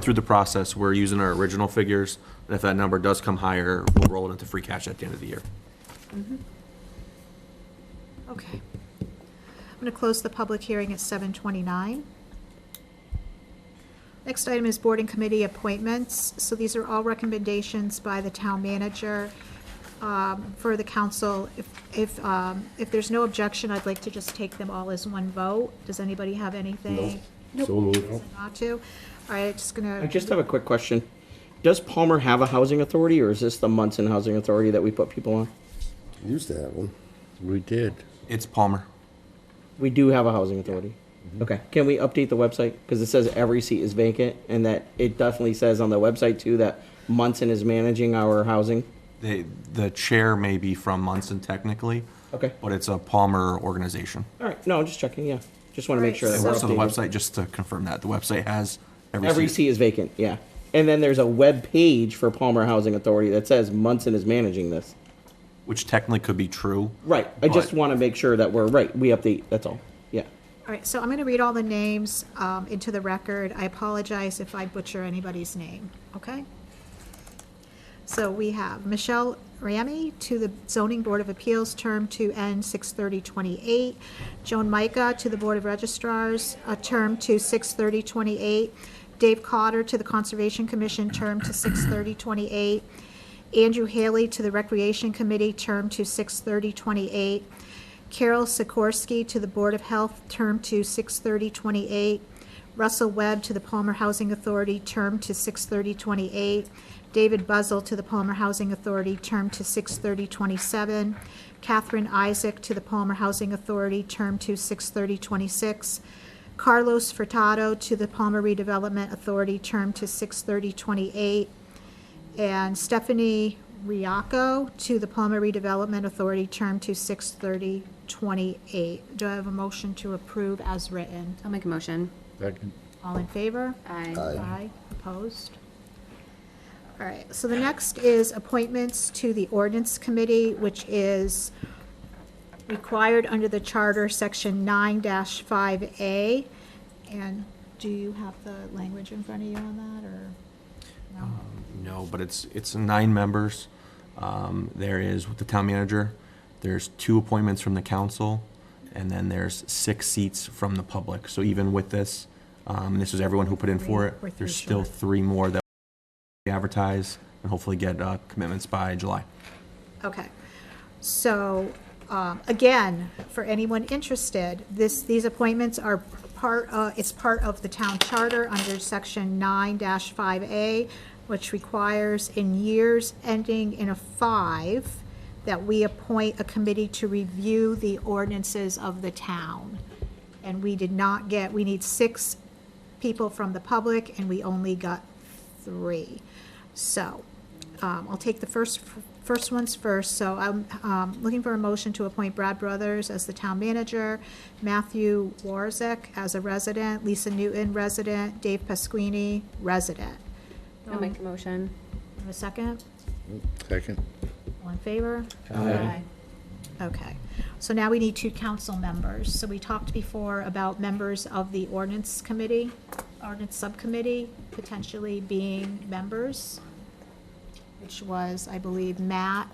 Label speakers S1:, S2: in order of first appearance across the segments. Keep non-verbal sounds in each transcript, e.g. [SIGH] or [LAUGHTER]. S1: through the process, we're using our original figures. And if that number does come higher, we'll roll it into free cash at the end of the year.
S2: Okay. I'm going to close the public hearing at 7:29. Next item is board and committee appointments. So these are all recommendations by the town manager um, for the council. If, if, um, if there's no objection, I'd like to just take them all as one vote. Does anybody have anything?
S3: So moved.
S2: Not to? All right, just
S4: I
S2: going to,
S4: just have a quick question. Does Palmer have a housing authority, or is this the Munson Housing Authority that we put people on?
S3: Used to have one. We did.
S1: It's Palmer.
S4: We do have a housing authority. Okay, can we update the website? Because it says every seat is vacant, and that it definitely says on the website too that Munson is managing our housing.
S1: They, the chair may be from Munson technically.
S4: Okay.
S1: But it's a Palmer organization.
S4: All right, no, I'm just checking, yeah. Just want to make
S2: Right,
S4: sure that
S1: It
S2: so-
S4: we're
S1: works on the
S4: updated.
S1: website, just to confirm that. The website has
S4: Every seat is vacant, yeah. And then there's a web page for Palmer Housing Authority that says Munson is managing this.
S1: Which technically could be true.
S4: Right, I just
S1: but-
S4: want to make sure that we're right, we update, that's all, yeah.
S2: all right, so I'm going to read all the names um, into the record. I apologize if I butcher anybody's name, okay? So we have Michelle Ramey to the Zoning Board of Appeals, term to end 6 28 Joan Micah to the Board of Registrars, a term to 6 28 Dave Cotter to the Conservation Commission, term to 6 28 Andrew Haley to the Recreation Committee, term to 6 28 Carol Sikorsky to the Board of Health, term to 6 28 Russell Webb to the Palmer Housing Authority, term to 6/30/28. David Buzzell to the Palmer Housing Authority, term to 6/30/27. Catherine Isaac to the Palmer Housing Authority, term to 6/30/26. Carlos Furtado to the Palmer Redevelopment Authority, term to 6/30/28. And Stephanie Riaco to the Palmer Redevelopment Authority, term to 6/30/28. Do I have a motion to approve as written?
S5: I'll make a motion.
S3: Second.
S2: All in favor?
S5: Aye.
S2: opposed? All right, so the next is appointments to the ordinance committee, which is required under the charter, section nine five A. And do you have the language in front of you on that, or? no?
S1: No, but it's, it's nine members. Um, There is with the town manager, there's two appointments from the council, and then there's six seats from the public. So even with this, um, this is everyone who put in for
S2: Three- we're
S1: it, there's
S2: three
S1: still
S2: short.
S1: three more that we advertise and hopefully get uh, commitments by July.
S2: Okay. So, um, again, for anyone interested, this, these appointments are part, uh, it's part of the town charter under section nine five A, which requires in years ending in a five, that we appoint a committee to review the ordinances of the town. And we did not get, we need six people from the public, and we only got three. So, um, I'll take the first, first ones first. So I'm, um, looking for a motion to appoint Brad Brothers as the town manager, Matthew Warzek as a resident, Lisa Newton, resident, Dave Pasquini, resident.
S5: I'll make a motion.
S2: Have a second?
S3: Second.
S2: All in favor? Okay, so now we need two council members. So we talked before about members of the ordinance committee, ordinance subcommittee potentially being members, which was, I believe, Matt,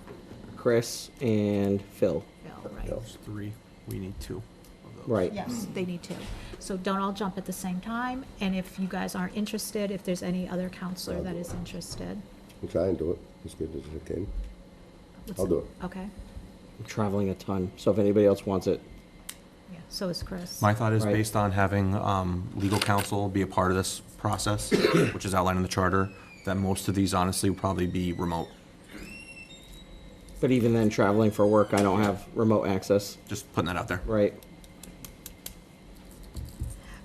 S4: Chris and Phil.
S2: Bill, right?
S1: There's three, we need two of those.
S4: Right.
S2: Yes, they need to. So don't all jump at the same time, and if you guys aren't interested, if there's any other counselor that is interested.
S3: I'll try and do it as good as I can.
S2: what's
S3: I'll do it.
S2: Okay,
S4: I'm traveling a ton, so if anybody else wants it,
S2: yeah, so is Chris.
S1: My thought is
S4: Right.
S1: based on having um, legal counsel be a part of this process, [COUGHS] which is outlined in the charter, that most of these honestly will probably be remote.
S4: but even then, traveling for work, I don't have remote access.
S1: Just putting that out there.
S4: Right.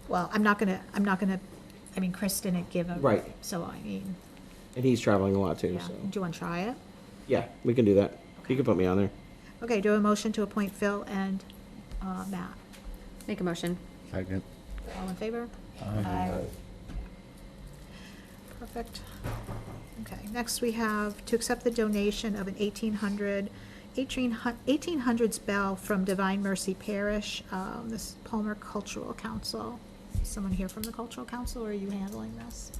S2: Well, I'm not gonna, I'm not gonna, I mean, Chris didn't give a.
S4: Right.
S2: So, I mean,
S4: And he's traveling a lot too,
S2: yeah,
S4: so.
S2: do you wanna try it?
S4: Yeah, we can do that. You can put me on there.
S2: Okay, do a motion to appoint Phil and, uh, Matt.
S5: Make a motion.
S3: Second.
S2: All in favor? Aye. Perfect. Okay, next we have to accept the donation of an 1800 1800s bell from Divine Mercy Parish, um, this Palmer Cultural Council. Is Someone here from the Cultural Council, or are you handling this?